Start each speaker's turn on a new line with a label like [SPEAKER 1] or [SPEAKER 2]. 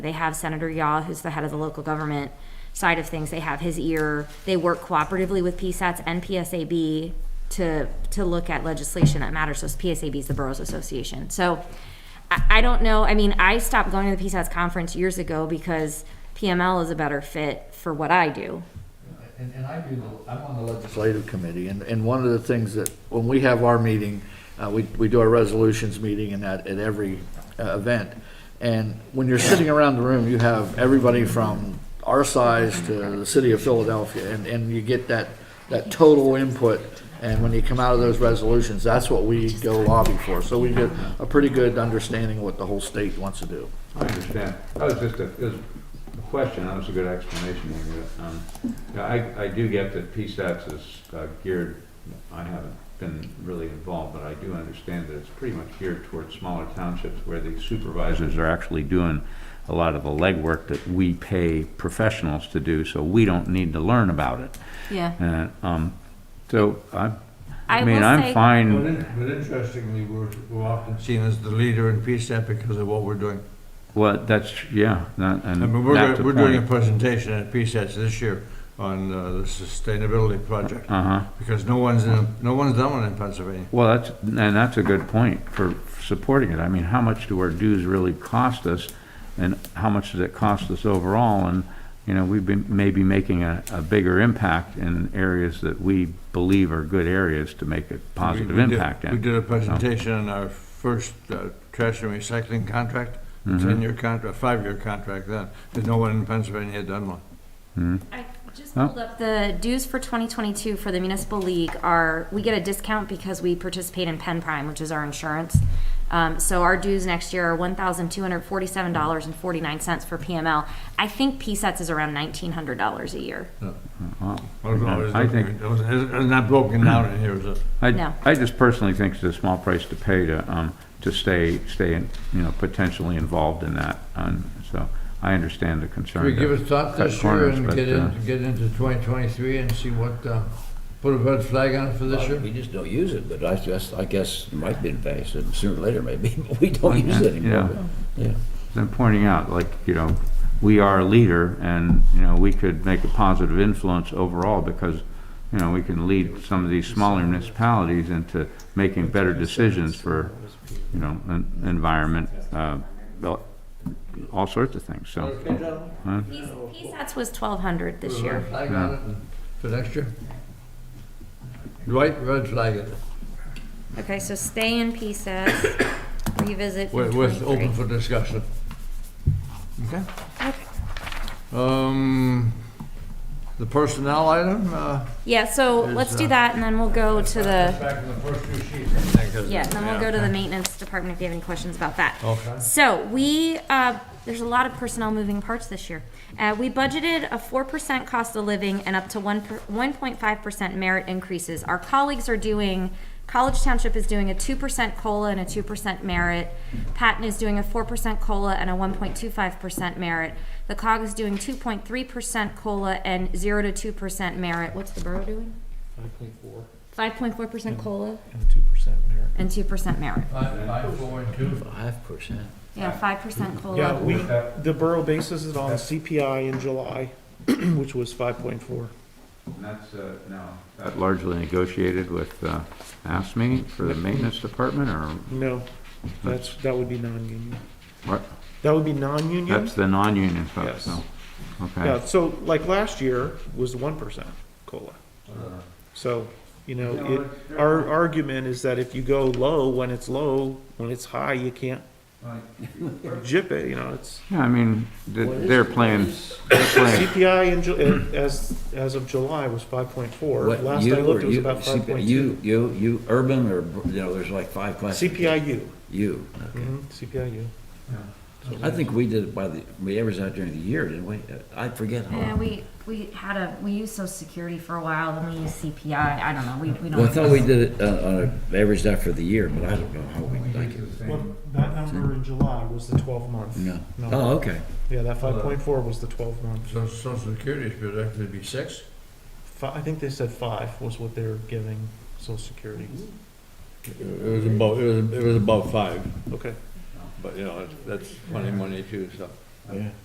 [SPEAKER 1] They have Senator Yaw, who's the head of the local government side of things. They have his ear. They work cooperatively with PSATs and PSAB to, to look at legislation that matters. So PSAB is the Boroughs Association. So I, I don't know. I mean, I stopped going to the PSATs conference years ago because PML is a better fit for what I do.
[SPEAKER 2] And, and I do, the- I'm on the legislative committee, and, and one of the things that, when we have our meeting, uh, we, we do our resolutions meeting and that at every uh, event. And when you're sitting around the room, you have everybody from our size to the city of Philadelphia, and, and you get that, that total input. And when you come out of those resolutions, that's what we go lobby for. So we get a pretty good understanding of what the whole state wants to do.
[SPEAKER 3] I understand. That was just a, it was a question, that was a good explanation. Amy. Um, yeah, I, I do get that PSATs is uh, geared, I haven't been really involved, but I do understand that it's pretty much geared towards smaller townships where the supervisors are actually doing a lot of the legwork that we pay professionals to do, so we don't need to learn about it.
[SPEAKER 1] Yeah.
[SPEAKER 3] And, um, so I,
[SPEAKER 1] I
[SPEAKER 3] I mean,
[SPEAKER 1] will
[SPEAKER 3] I'm
[SPEAKER 1] say-
[SPEAKER 4] But
[SPEAKER 3] fine,
[SPEAKER 4] in- but interestingly, we're we're often seen as the leader in PSAP because of what we're doing.
[SPEAKER 3] well, that's, yeah, that-
[SPEAKER 4] I
[SPEAKER 3] and
[SPEAKER 4] mean, we're,
[SPEAKER 3] that's
[SPEAKER 4] gonna-
[SPEAKER 3] the
[SPEAKER 4] we're doing a
[SPEAKER 3] point.
[SPEAKER 4] presentation at PSAT this year on uh, the sustainability project,
[SPEAKER 3] Uh-huh.
[SPEAKER 4] because no one's, in- no one's done one in Pennsylvania.
[SPEAKER 3] Well, that's, and that's a good point for supporting it. I mean, how much do our dues really cost us? And how much does it cost us overall? And, you know, we've been maybe making a, a bigger impact in areas that we believe are good areas to make a positive
[SPEAKER 4] We- we did-
[SPEAKER 3] impact
[SPEAKER 4] We
[SPEAKER 3] in.
[SPEAKER 4] did a presentation on our first uh, trash and recycling contract, a
[SPEAKER 3] Mm-hmm.
[SPEAKER 4] ten-year contract, five-year contract then, because no one in Pennsylvania had done one.
[SPEAKER 1] I just
[SPEAKER 3] Huh?
[SPEAKER 1] pulled up the dues for 2022 for the municipal league are, we get a discount because we participate in Penn Prime, which is our insurance. Um, so our dues next year are $1,247.49 for PML. I think PSATs is around $1,900 a year.
[SPEAKER 3] Wow.
[SPEAKER 4] I don't know, it
[SPEAKER 3] I
[SPEAKER 4] was-
[SPEAKER 3] think-
[SPEAKER 4] it was- It's not broken down in here, is it?
[SPEAKER 3] I,
[SPEAKER 1] No.
[SPEAKER 3] I just personally think it's a small price to pay to, um, to stay, stay, in- you know, potentially involved in that. And so I understand the concern.
[SPEAKER 4] Should we
[SPEAKER 3] to
[SPEAKER 4] give it a thought
[SPEAKER 3] cut
[SPEAKER 4] this year
[SPEAKER 3] corners,
[SPEAKER 4] and
[SPEAKER 3] but,
[SPEAKER 4] get
[SPEAKER 3] uh,
[SPEAKER 4] into, get into 2023 and see what, uh, put a red flag on it for this year?
[SPEAKER 5] We just don't use it, but I guess, I guess it might be in place, and sooner or later maybe, but we don't use it anymore. but, Yeah.
[SPEAKER 3] I'm pointing out, like, you know, we are a leader and, you know, we could make a positive influence overall because, you know, we can lead some of these smaller municipalities into making better decisions for, you know, en- environment, uh, well, all sorts of things, so.
[SPEAKER 4] Okay, gentlemen,
[SPEAKER 1] PSATs E was 1,200 this
[SPEAKER 4] put a
[SPEAKER 1] year.
[SPEAKER 4] red flag on it for next year? Right, red flag it, Uh-huh.
[SPEAKER 1] Okay, so stay in PSATs, revisit for
[SPEAKER 4] with, with
[SPEAKER 1] 23.
[SPEAKER 4] open for discussion. Okay?
[SPEAKER 1] Okay.
[SPEAKER 4] Um, the personnel item, uh.
[SPEAKER 1] Yeah, so
[SPEAKER 4] There's,
[SPEAKER 1] let's do
[SPEAKER 4] uh,
[SPEAKER 1] that and then we'll go to the.
[SPEAKER 4] Back in the first two sheets, I think, is it?
[SPEAKER 1] Yeah, then we'll go to the
[SPEAKER 4] okay.
[SPEAKER 1] maintenance department if you have any questions about that.
[SPEAKER 4] Okay.
[SPEAKER 1] So we, uh, there's a lot of personnel moving parts this year. Uh, we budgeted a four percent cost of living and up to one, one point five percent merit increases. Our colleagues are doing, College Township is doing a two percent COLA and a two percent merit. Patton is doing a four percent COLA and a one point two five percent merit. The COG is doing two point three percent COLA and zero to two percent merit. What's the borough doing? Five point four percent COLA
[SPEAKER 6] and two percent merit.
[SPEAKER 1] and two percent merit.
[SPEAKER 4] Five, five, four, and two.
[SPEAKER 5] Five percent.
[SPEAKER 1] Yeah, five percent COLA.
[SPEAKER 6] Oh, Yeah, we, the borough bases it on CPI in July, which was five point four.
[SPEAKER 3] And that's, uh, now. That largely negotiated with, uh, ASME for the maintenance department or
[SPEAKER 6] No, that's, that would be non-union.
[SPEAKER 3] what?
[SPEAKER 6] That would be non-union?
[SPEAKER 3] That's the non-union folks, so,
[SPEAKER 6] Yes.
[SPEAKER 3] okay.
[SPEAKER 6] Yeah, so like last year was one percent COLA. So, you know, it, our argument is that if you go low when it's low, when it's high, you can't jip it, you know, it's
[SPEAKER 3] Yeah, I mean, th- they're playing, they're playing,
[SPEAKER 6] CPI in, Ju- in- as, as of July was five point four.
[SPEAKER 5] What,
[SPEAKER 6] Last
[SPEAKER 5] you
[SPEAKER 6] I looked,
[SPEAKER 5] or
[SPEAKER 6] it was
[SPEAKER 5] you-
[SPEAKER 6] about
[SPEAKER 5] CPI
[SPEAKER 6] five point two.
[SPEAKER 5] You, you, you, urban or, you know, there's like five classes.
[SPEAKER 6] CPIU,
[SPEAKER 5] You.
[SPEAKER 6] Mhm, CPIU.
[SPEAKER 5] I think we did it by the, we averaged out during the year, didn't we? I forget how.
[SPEAKER 1] Yeah, we, we had a, we used social security for a while, then we used CPI, I don't know, we, we don't.
[SPEAKER 5] Well, I thought we did it uh, on, a averaged out for the year, but I don't know how we, like,
[SPEAKER 6] Well, that number in July was the twelve month.
[SPEAKER 5] no.
[SPEAKER 6] No,
[SPEAKER 5] Oh, okay.
[SPEAKER 6] yeah, that five point four was the twelve month.
[SPEAKER 4] So social security should actually be six?
[SPEAKER 6] Fi- I think they said five was what they were giving social security.
[SPEAKER 4] It was about, it was, it was about five,
[SPEAKER 6] Okay,
[SPEAKER 4] but you know, that's twenty, twenty-two, so.
[SPEAKER 5] yeah.